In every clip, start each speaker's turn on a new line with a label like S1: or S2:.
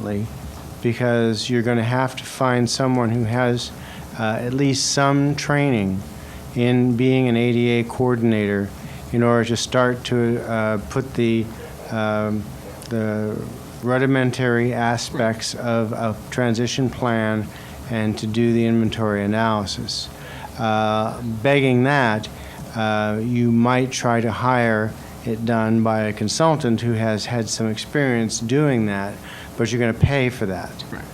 S1: differently, because you're going to have to find someone who has uh, at least some training in being an ADA coordinator in order to start to uh, put the, um, the rudimentary aspects of a transition plan and to do the inventory analysis. Uh, Begging that, uh, you might try to hire it done by a consultant who has had some experience doing that, but you're going to pay for that.
S2: Right.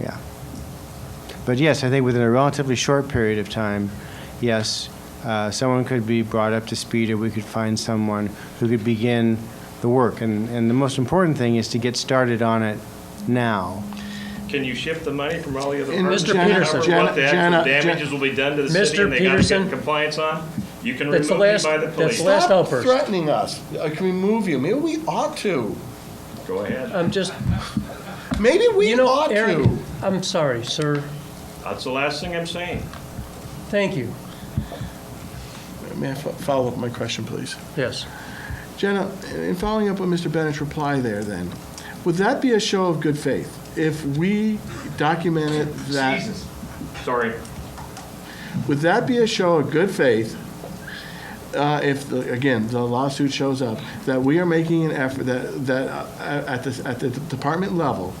S1: Yeah. But yes, I think within a relatively short period of time, yes, uh, someone could be brought up to speed, or we could find someone who could begin the work. And, and the most important thing is to get started on it now.
S3: Can you shift the money from all the other
S2: And
S3: departments?
S2: Mr.
S3: to cover
S2: Peterson.
S3: What the
S2: Jenna- Jenna-
S3: actual damages will be done to the city
S4: Mr.
S3: and they gotta
S4: Peterson.
S3: get compliance on? You can remove
S4: That's the
S3: me by
S4: last-
S3: the
S4: that's
S3: police.
S4: the last-
S2: Stop
S4: outburst.
S2: threatening us. I can remove you. Maybe we ought to.
S3: Go ahead.
S4: I'm just,
S2: Maybe we
S4: you know,
S2: ought
S4: Aaron,
S2: to.
S4: I'm sorry, sir.
S3: That's the last thing I'm saying.
S4: Thank you.
S2: May I fo- follow up my question, please?
S4: Yes.
S2: Jenna, in following up on Mr. Bennett's reply there, then, would that be a show of good faith if we documented that?
S3: Sorry.
S2: Would that be a show of good faith uh, if, the- again, the lawsuit shows up, that we are making an effort, that, that uh, at the, at the department level,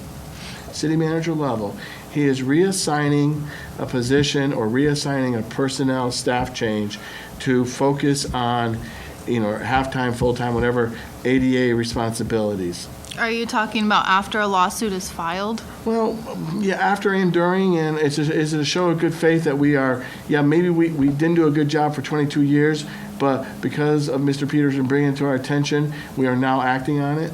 S2: city manager level, he is reassigning a position or reassigning a personnel staff change to focus on, you know, half-time, full-time, whatever, ADA responsibilities?
S5: Are you talking about after a lawsuit is filed?
S2: Well, yeah, after and during, and it's just, is it a show of good faith that we are, yeah, maybe we, we didn't do a good job for 22 years, but because of Mr. Peterson bringing it to our attention, we are now acting on it?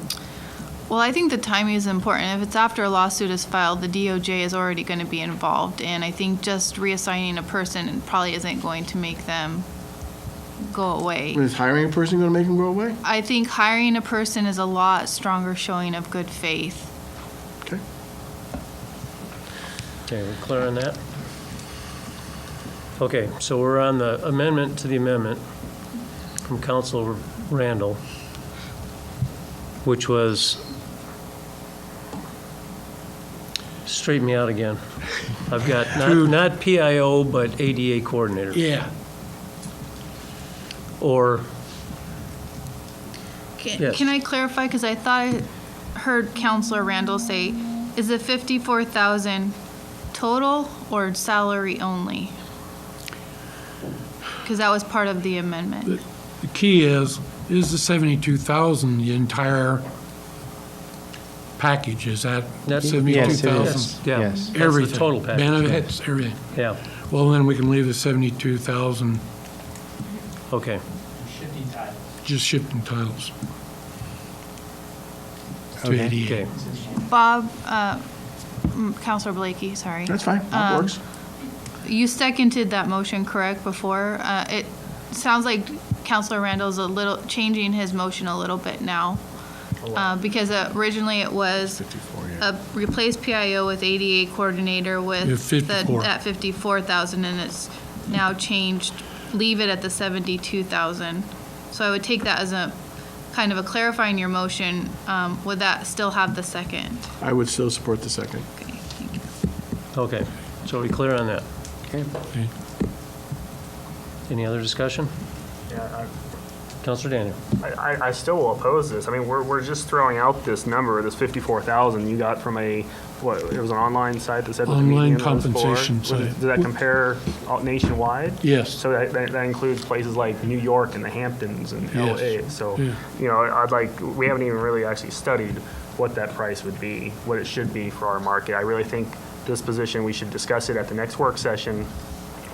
S5: Well, I think the timing is important. If it's after a lawsuit is filed, the DOJ is already going to be involved, and I think just reassigning a person probably isn't going to make them go away.
S2: Is hiring a person going to make him go away?
S5: I think hiring a person is a lot stronger showing of good faith.
S4: Okay, we're clear on that? Okay, so we're on the amendment to the amendment from Council Randall, which was, straighten me out again. I've got not, not PIO, but ADA coordinator.
S6: Yeah,
S4: Or,
S5: Can
S4: Yes.
S5: can I clarify, because I thought I heard Counselor Randall say, is it 54,000 total or salary only? Because that was part of the amendment.
S6: the key is, is the seventy-two thousand the entire package, is that
S4: That's-
S6: seventy-two
S1: Yes,
S6: thousand?
S1: it is.
S4: yeah.
S1: Yes.
S4: that's the
S6: Everything?
S4: total package.
S6: Benefits, everything.
S4: Yeah,
S6: Well, then we can leave the seventy-two thousand
S4: okay.
S6: just shifting titles to
S1: Okay.
S6: ADA.
S4: Okay,
S5: Bob, uh, mm, Counselor Blakey, sorry.
S2: That's fine, that
S5: Um,
S2: works.
S5: You seconded that motion, correct, before? Uh, It sounds like Counselor Randall's a little, changing his motion a little bit now. Uh, Because originally it was uh, replace PIO with ADA coordinator
S6: Yeah,
S5: with
S6: 54.
S5: the- at 54,000, and it's now changed, leave it at the 72,000. So I would take that as a, kind of a clarifying your motion. Um, Would that still have the second?
S2: I would still support the second.
S5: Okay, thank you.
S4: okay. So are we clear on that?
S6: Okay.
S4: Any other discussion?
S7: Yeah,
S4: Counselor Daniel?
S7: I, I, I still will oppose this. I mean, we're, we're just throwing out this number, this fifty-four thousand you got from a, what, it was an online site that said what the
S6: Online
S7: median was for?
S6: compensation
S7: Was-
S6: site.
S7: Does that compare all- nationwide?
S6: Yes,
S7: So that, that that includes places like New York and the Hamptons and
S6: Yes.
S7: LA. So,
S6: Yeah.
S7: you know, I'd like, we haven't even really actually studied what that price would be, what it should be for our market. I really think this position, we should discuss it at the next work session,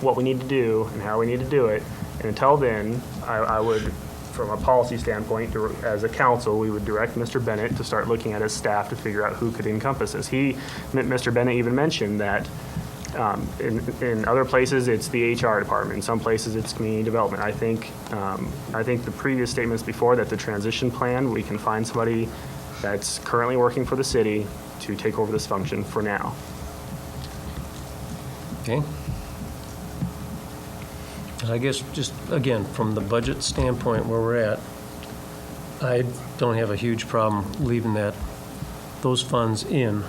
S7: what we need to do and how we need to do it. And until then, I, I would, from a policy standpoint, dir- as a council, we would direct Mr. Bennett to start looking at his staff to figure out who could encompass this. He, M- Mr. Bennett even mentioned that um, in, in other places, it's the HR department. In some places, it's community development. I think, um, I think the previous statements before that the transition plan, we can find somebody that's currently working for the city to take over this function for now.
S4: Okay. And I guess, just again, from the budget standpoint where we're at, I don't have a huge problem leaving that, those funds in